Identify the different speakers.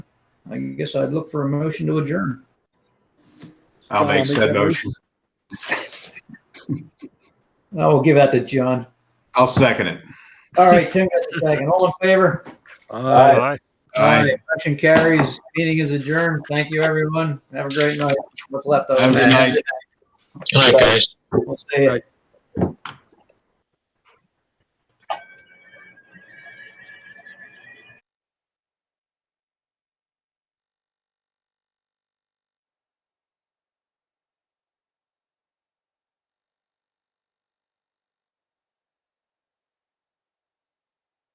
Speaker 1: I guess I'd look for a motion to adjourn.
Speaker 2: I'll make said motion.
Speaker 1: I will give that to John.
Speaker 2: I'll second it.
Speaker 1: All right, Tim, got the second. All in favor?
Speaker 3: Aye.
Speaker 2: Aye.
Speaker 1: Motion carries. Meeting is adjourned. Thank you, everyone. Have a great night. What's left of
Speaker 2: Have a good
Speaker 1: it.
Speaker 2: night.
Speaker 4: Good night, guys.
Speaker 1: We'll see you.